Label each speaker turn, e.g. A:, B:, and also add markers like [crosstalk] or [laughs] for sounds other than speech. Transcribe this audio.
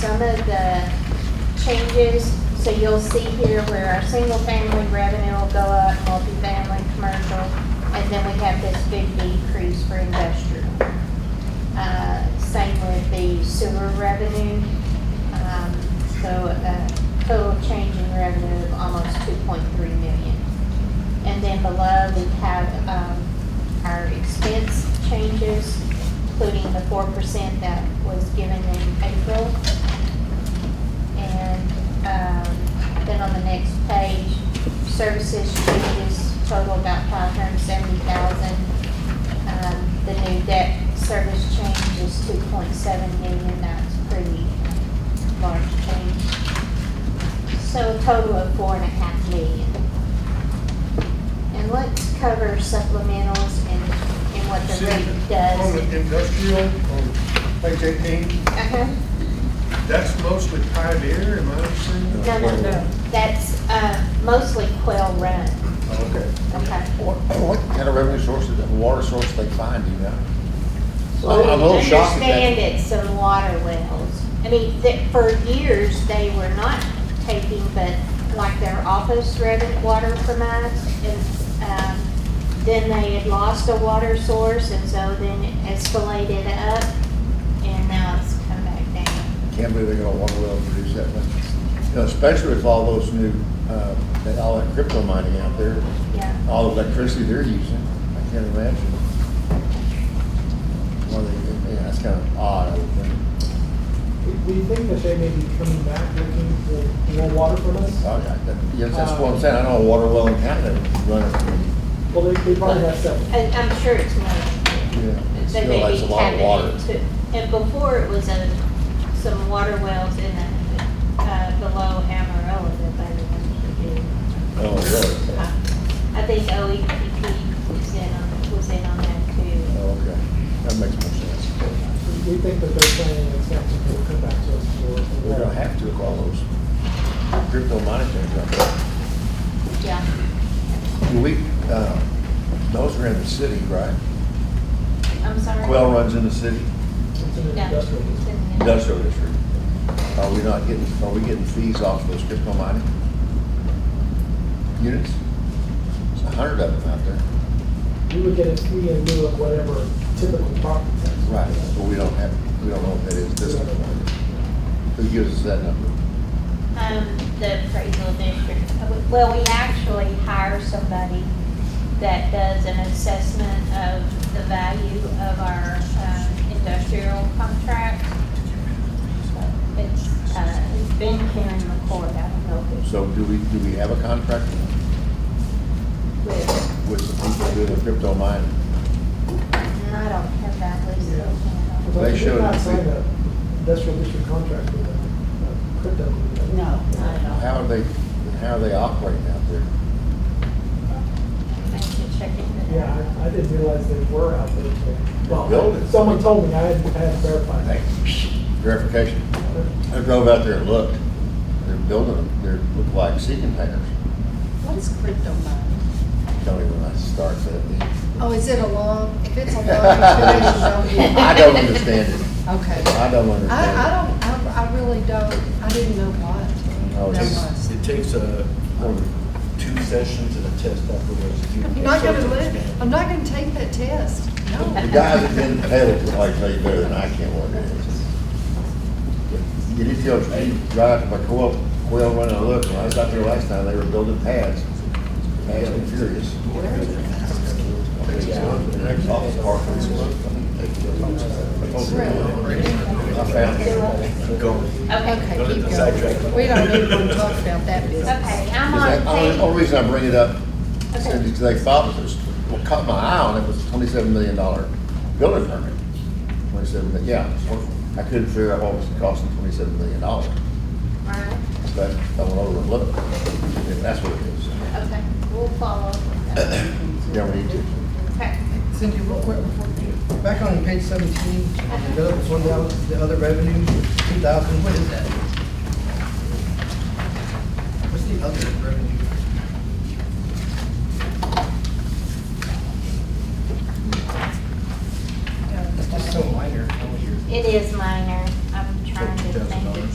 A: some of the changes. So you'll see here where our single-family revenue will go up, multifamily, commercial, and then we have this big decrease for industrial. Uh, Same with the sewer revenue. Um, So a total change in revenue of almost 2.3 million. And then below, we have um, our expense changes, including the 4% that was given in April. And um, then on the next page, services changes total about 570,000. Um, The new debt service change is 2.7 million, that's pretty large change. So a total of 4.5 million. And let's cover supplementals and, and what the rate
B: On the
A: does.
B: industrial, um, on page eighteen,
A: Uh-huh.
B: that's mostly Pioneer, am I understanding?
A: No, no,
C: No.
A: no, that's, uh, mostly Quail Run,
B: Oh, Okay.
A: okay?
C: What what kind of revenue sources, water source they find, you know? I'm a little shocked at that.
A: Understand it's some water wells. I mean, that, for years, they were not taking, but like their office revenue, water from us, and, um, then they had lost a water source, and so then it escalated up, and now it's come back down.
C: Can't believe they're gonna water well produce that much. You know, especially with all those new, uh, that- all that crypto mining out there,
A: Yeah,
C: all the electricity they're using, I can't imagine. Well, they- yeah, that's kind of odd, I would think.
D: We we think that they may be coming back looking for more water from us.
C: Oh, yeah, that- yeah, that's what I'm saying, I know a water well in Canada is running,
D: Well, they, they probably have several.
A: and I'm sure it's more.
C: yeah.
A: They
C: Still,
A: may
C: that's
A: be
C: a lot of
A: tapping
C: water.
A: into- And before it was a, some water wells in the, uh, below Amarillo that they were going to do.
C: Oh, really?
A: Uh, I think E OEPP was in on, was in on that
C: Oh,
A: too.
C: okay, that makes more sense.
D: We- We think that they're planning an extension, they'll come back to us for.
C: We're gonna have to with all those crypto mining things out there.
A: Yeah.
C: We, uh, those are in the city, right?
A: I'm sorry.
C: Quail runs in the city,
D: It's an
A: No, it's
D: industrial. use.
A: in the-
C: industrial district. Are we not getting, are we getting fees off those crypto mining units? There's a hundred of them out there.
D: We would get a fee in lieu of whatever typical property tax.
C: But we don't have, we don't know if that is this one. Who gives us that number?
A: Um, the appraisal district, well, we actually hire somebody that does an assessment of the value of our, um, industrial contract. It's, uh, it's been Karen McCord, I don't know if it's
C: So do we, do we have a contract
A: with,
C: with the people who do the crypto mining?
A: and I don't have that list.
D: Yeah.
A: offhand.
D: But
C: They
D: We're
C: showed
D: not
C: it.
D: signing an industrial district contract with a a crypto. company.
E: No, not at all.
C: How are they, how are they operating out there?
A: I should check into that.
D: Yeah, I, I didn't realize they were out there. but-
C: Building.
D: Well, someone told me, I hadn't, I hadn't verified.
C: Hey, verification. I drove out there and looked. They're building them, they're, look like sea containers.
E: What is crypto mining?
C: Don't even I start that.
E: Oh, is it a long, if it's a
C: [laughs]
E: long, then
C: I don't understand it.
E: don't. Okay. I,
C: I don't
E: I
C: understand
E: don't, I, I really don't, I didn't know
C: Oh,
E: what that
C: it's-
E: was.
F: It takes uh, two sessions and a test afterwards. You-
E: I'm not gonna live, I'm not gonna take that test, no.
C: it. The guy that didn't tell it, I tell you better than I can what it is. You did tell, me, you drive to my co-op, well, run and look, when I was out there last time, they were building pads. Fast and furious. Off the park.
E: Really?
C: I found it.
F: Go.
A: Okay,
E: Okay,
F: Don't let
E: keep
F: them
E: going.
F: sidetrack.
E: We don't even talk about that business.
A: okay, I'm
C: Because I- Only,
A: on
C: only
A: page,
C: reason I bring it up is
A: Okay.
C: because I thought it was, what caught my eye on it was twenty-seven million dollar building permit. Twenty-seven, mi- yeah, so I couldn't figure out what was costing twenty-seven million dollars,
A: all right,
C: but I went over and looked, and that's what it is.
A: okay, we'll follow up with that.
C: [coughs] Yeah, we need to.
A: Okay.
G: Cindy, real quick, before you, back on page seventeen, the other one down, the other revenue, two thousand, what is that? What's the other revenue? That's just so minor.
A: It is minor, I'm trying to think.
F: $50,000.
A: if